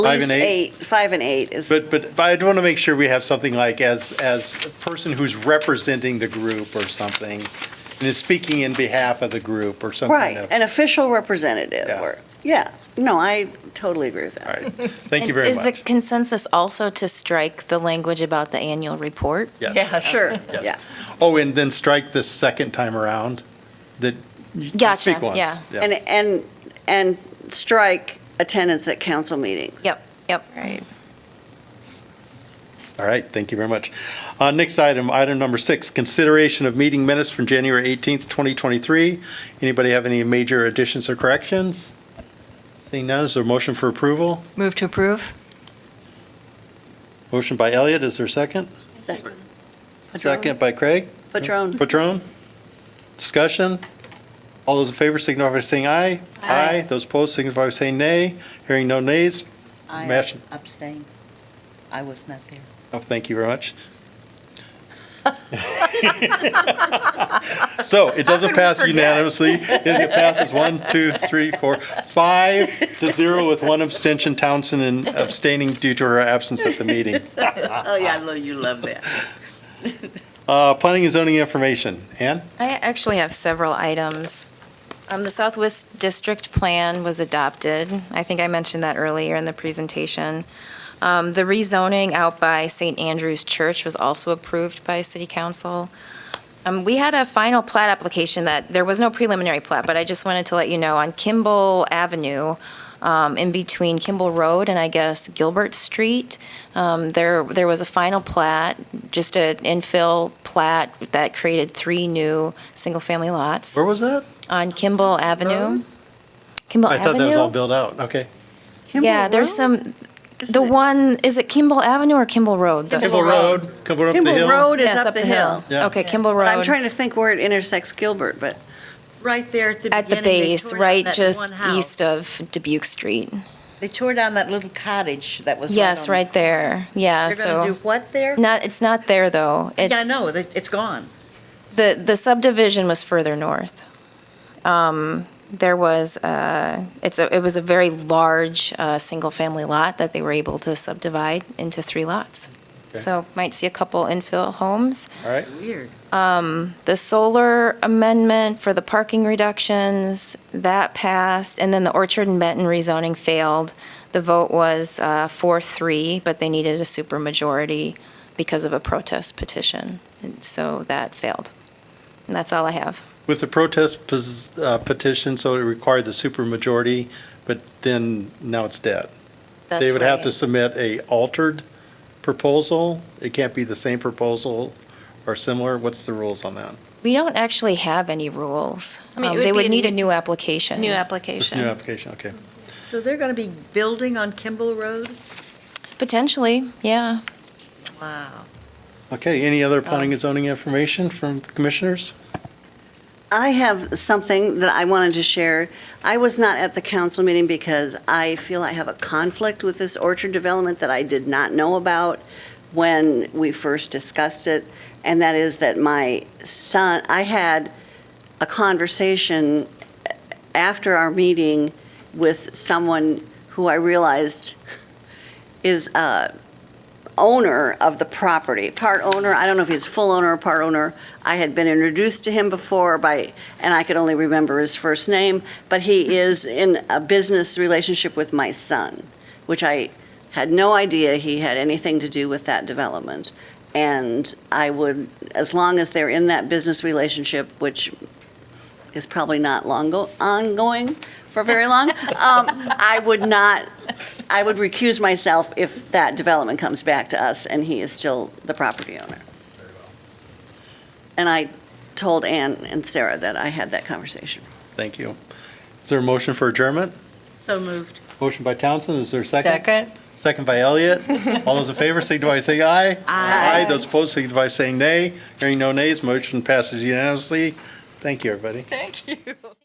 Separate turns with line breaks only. Five
least
and eight?
Five and eight is,
But, but but I do want to make sure we have something like as, as a person who's representing the group or something, and is speaking in behalf of the group or something.
right, an official representative,
Yeah.
or, yeah, no, I totally agree with
All
that.
right, thank you
And
very
Is the
much.
consensus also to strike the language about the annual report?
Yes.
Sure,
Yes.
yeah,
Oh, and then strike the second time around, that you
Gotcha,
speak once.
yeah.
and, and, and strike attendance at council meetings.
Yep, yep. Right.
All right, thank you very much. Uh, Next item, item number six, consideration of meeting minutes from January 18th, 2023. Anybody have any major additions or corrections? Seeing none, is there a motion for approval?
Move to approve?
Motion by Elliot, is there a second?
Second.
Second by Craig?
Patron.
Patron? Discussion? All those in favor signify by saying aye.
Aye.
Those opposed signify by saying nay. Hearing no nays.
I
Motion-
abstain. I was not there.
Oh, thank you very much. So it doesn't pass unanimously. It passes one, two, three, four, five to zero with one abstention, Townsend and abstaining due to her absence at the meeting.
Oh, yeah, I know you love that.
Uh, Planning and zoning information. Ann?
I actually have several items. Um, The Southwest District Plan was adopted. I think I mentioned that earlier in the presentation. Um, The rezoning out by St. Andrew's Church was also approved by City Council. Um, We had a final plat application that, there was no preliminary plat, but I just wanted to let you know, on Kimball Avenue, um, in between Kimball Road and I guess Gilbert Street, um, there, there was a final plat, just an infill plat that created three new single-family lots
Where was that?
on Kimball Avenue. Kimball
I thought that was all
Avenue?
built out. Okay.
Yeah, there's some, the one, is it Kimball Avenue or Kimball Road? The-
Kimball Road, Kimball up the
Kimball
hill.
Road is
Yes,
up the hill.
Yeah.
Okay, Kimball
But
Road.
I'm trying to think where it intersects Gilbert, but,
Right there at the beginning.
At the
they
base,
tore down
right
that
just
one house.
east of Dubuque Street.
They tore down that little cottage that was.
Yes,
on-
right there. Yeah,
They're going to do
so,
what there?
not, it's not there, though.
Yeah, I
It's-
know, that- it's gone.
The, the subdivision was further north. Um, There was, uh, it's a, it was a very large, uh, single-family lot that they were able to subdivide into three lots.
Okay.
So might see a couple infill homes.
All right.
Weird.
Um, The solar amendment for the parking reductions, that passed, and then the Orchard and Benton rezoning failed. The vote was uh, 4-3, but they needed a supermajority because of a protest petition, and so that failed. And that's all I have.
With the protest pos- uh, petition, so it required the supermajority, but then now it's dead.
That's
They would have to
right.
submit a altered proposal. It can't be the same proposal or similar. What's the rules on that?
We don't actually have any rules.
I mean, it
Um,
would
They
be
would
a
need a
new-
new application.
New
Just new
application.
application, okay.
So they're going to be building on Kimball Road?
Potentially, yeah.
Wow.
Okay, any other planning and zoning information from commissioners?
I have something that I wanted to share. I was not at the council meeting because I feel I have a conflict with this orchard development that I did not know about when we first discussed it, and that is that my son, I had a conversation after our meeting with someone who I realized is a owner of the property, part owner, I don't know if he's full owner or part owner. I had been introduced to him before by, and I could only remember his first name, but he is in a business relationship with my son, which I had no idea he had anything to do with that development. And I would, as long as they're in that business relationship, which is probably not long go, ongoing for very long, um, I would not, I would recuse myself if that development comes back to us and he is still the property owner. And I told Ann and Sarah that I had that conversation.
Thank you. Is there a motion for adjournment?
So moved.
Motion by Townsend, is there a second? Second by Elliot. All those in favor signify by saying aye. Aye. Those opposed signify by saying nay. Hearing no nays, motion passes unanimously. Thank you, everybody.
Thank you.